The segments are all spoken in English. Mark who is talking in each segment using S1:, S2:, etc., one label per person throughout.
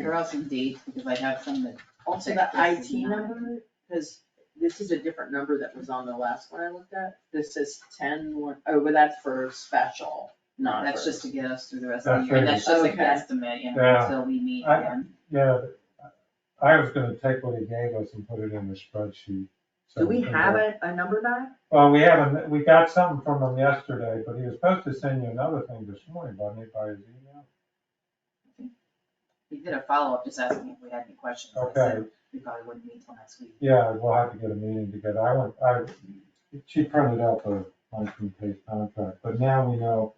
S1: or else in dates, because I have some that.
S2: Also, the IT number, because this is a different number that was on the last one I looked at. This is ten one, oh, but that's for special,
S1: No,
S2: not
S1: that's
S2: for.
S1: just to get us through the rest of the
S3: That's
S1: year, and
S3: right.
S1: that's just an
S2: Okay.
S1: estimate, you know,
S3: Yeah.
S1: until we meet
S3: I-
S1: again.
S3: Yeah, I was gonna take what he gave us and put it in the spreadsheet. so
S4: Do we
S3: can
S4: have
S3: go-
S4: a, a number back?
S3: Well, we haven't, we got something from him yesterday, but he was supposed to send you another thing this morning, wasn't he, by his email?
S1: We did a follow-up, just asking if we had any questions, I said,
S3: Okay,
S1: we probably wouldn't meet till next week.
S3: yeah, we'll have to get a meeting together. I went, I, she printed out the nineteen page contract, but now we know.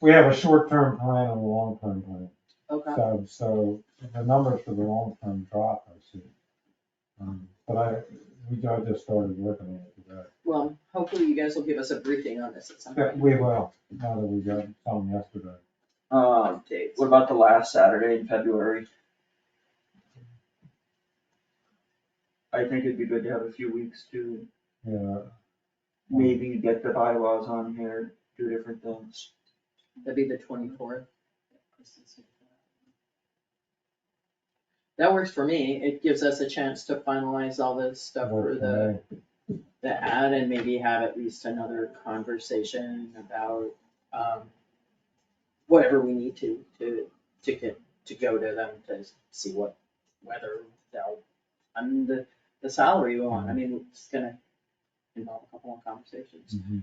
S3: We have a short-term plan and a long-term plan.
S2: Okay.
S3: So, so the numbers for the long-term drop, I see. Um, But I, we, I just started working on it today.
S2: Well, hopefully you guys will give us a briefing on this at some
S3: Yeah,
S2: point.
S3: we will, now that we got some yesterday.
S5: Um,
S2: Updates.
S5: what about the last Saturday in February? I think it'd be good to have a few weeks to
S3: Yeah,
S5: maybe get the bylaws on here, do different things.
S2: That'd be the twenty-fourth. That works for me. It gives us a chance to finalize all this stuff for
S3: work
S2: the,
S3: for me.
S2: the ad and maybe have at least another conversation about, um, whatever we need to, to, to get, to go to them to see what, whether they'll, fund the, the salary we want. I mean, it's gonna involve a couple more conversations.
S3: Mhm.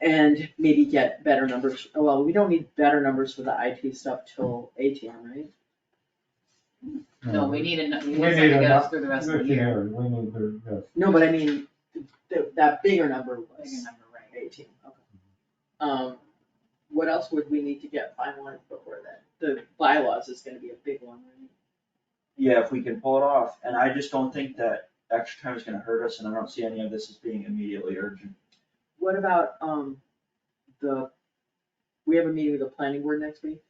S2: And maybe get better numbers, oh, well, we don't need better numbers for the IT stuff till ATM, right?
S1: No, we need a, we need something to
S3: We need
S1: get us
S3: enough-
S1: through the rest of
S3: Look
S1: the year.
S3: here, We need to, yes,
S2: No, but I mean, th- that bigger number
S1: Bigger
S2: was
S1: number, right.
S2: eighteen, okay. Um, what else would we need to get finalized before that? The bylaws is gonna be a big one, right?
S5: Yeah, if we can pull it off, and I just don't think that extra time is gonna hurt us, and I don't see any of this as being immediately urgent.
S2: What about, um, the, we have a meeting with the planning board next week,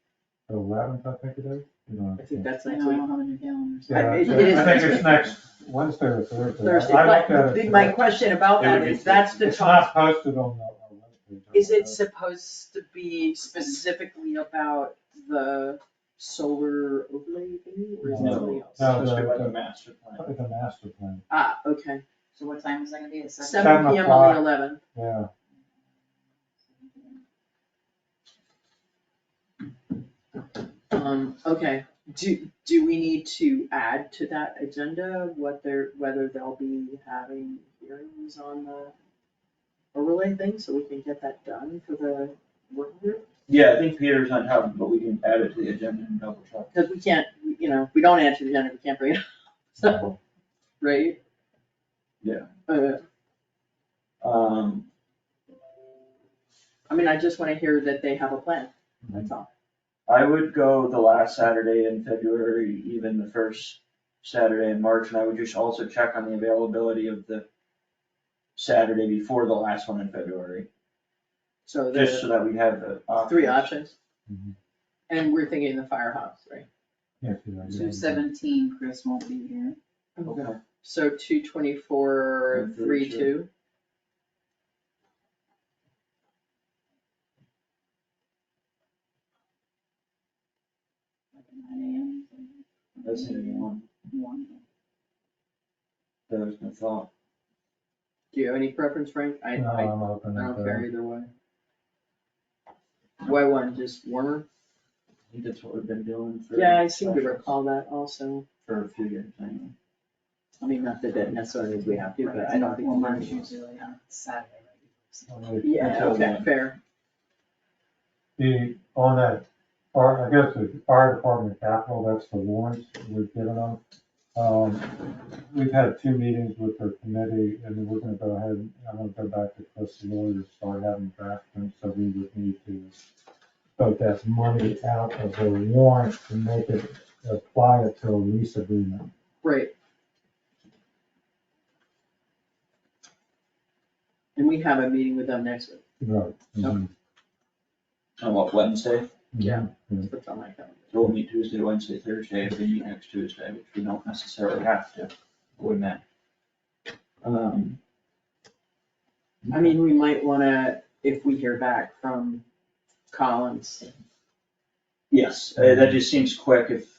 S3: the eleventh, I think it is, you know.
S2: I think that's
S1: I
S2: next
S1: know, I
S2: week.
S1: don't have a new calendar. so-
S3: Yeah,
S2: I-
S3: I
S2: it-
S3: think
S2: it is
S3: it's
S2: next
S3: next Wednesday or Thursday.
S2: Thursday,
S3: I looked
S2: but
S3: at it
S2: the- my
S3: today.
S2: question about
S5: It would
S2: that
S5: be
S2: is, that's the
S3: It's
S2: talk,
S3: not posted on the. on the webpage, I
S2: is
S3: don't
S2: it supposed to be specifically about the solar overlay thing, or is it
S3: No.
S2: something else?
S3: No,
S5: It's
S3: the-
S5: about
S3: the-
S5: the master
S3: know.
S5: plan.
S3: It's a master plan,
S2: Ah, okay,
S1: So what time is that gonna be, It's seven?
S2: seven P M on
S3: o'clock.
S2: the eleventh,
S3: yeah,
S2: um, okay, do, do we need to add to that agenda what they're, whether they'll be having hearings on the overlay thing, so we can get that done for the work group?
S5: Yeah, I think Peter's on top, of it, but we can add it to the agenda and double check.
S2: Cause we can't, you know, we don't answer the agenda, we can't bring it up, so, right?
S5: Yeah.
S2: Uh,
S5: Um,
S2: I mean, I just wanna hear that they have a plan,
S5: Mm-hmm.
S2: that's all.
S5: I would go the last Saturday in February, even the first Saturday in March, and I would just also check on the availability of the Saturday before the last one in February,
S2: So
S5: just Mm-hmm.
S2: there's
S5: so that we have the.
S2: three options.
S3: Mhm.
S2: And we're thinking the firehouse, right?
S3: yes, yeah. yeah.
S1: Two seventeen, Chris won't be here.
S5: Okay.
S2: So two twenty-four,
S5: And
S2: three
S5: three
S2: two.
S1: like at 9 a.m.
S5: That's the only one
S1: One.
S5: that was my thought.
S2: Do you have any preference, Frank? I,
S3: No,
S2: I, I
S3: I'm open
S2: don't
S3: to
S2: care
S3: that.
S2: either way. Why one, just warmer?
S5: I think that's what we've been doing for.
S2: Yeah, I seem to recall that also.
S5: For a few years anyway.
S2: I mean, not that that necessarily means we have to, but I don't think.
S1: Well,
S2: we
S1: March
S2: need to.
S1: usually on Saturday, right?
S3: Well, it-
S2: Yeah, okay, fair.
S3: The, on that, our, I guess the fire department capital, that's the warrants we've given them. Um, We've had two meetings with their committee and we're gonna go ahead, I'm gonna go back to Chris Lloyd to start having drafting, so we would need to vote that money out of the warrant to make it apply it to a lease agreement.
S2: Right. And we have a meeting with them next week,
S3: Right. Mhm.
S5: On what, Wednesday?
S2: Yeah. That's what's on my calendar.
S5: So we'll meet Tuesday, Wednesday, Thursday, if we meet next Tuesday, which we don't necessarily have to, we may. Um.
S2: I mean, we might wanna, if we hear back from Collins,
S5: Yes, uh, that just seems quick if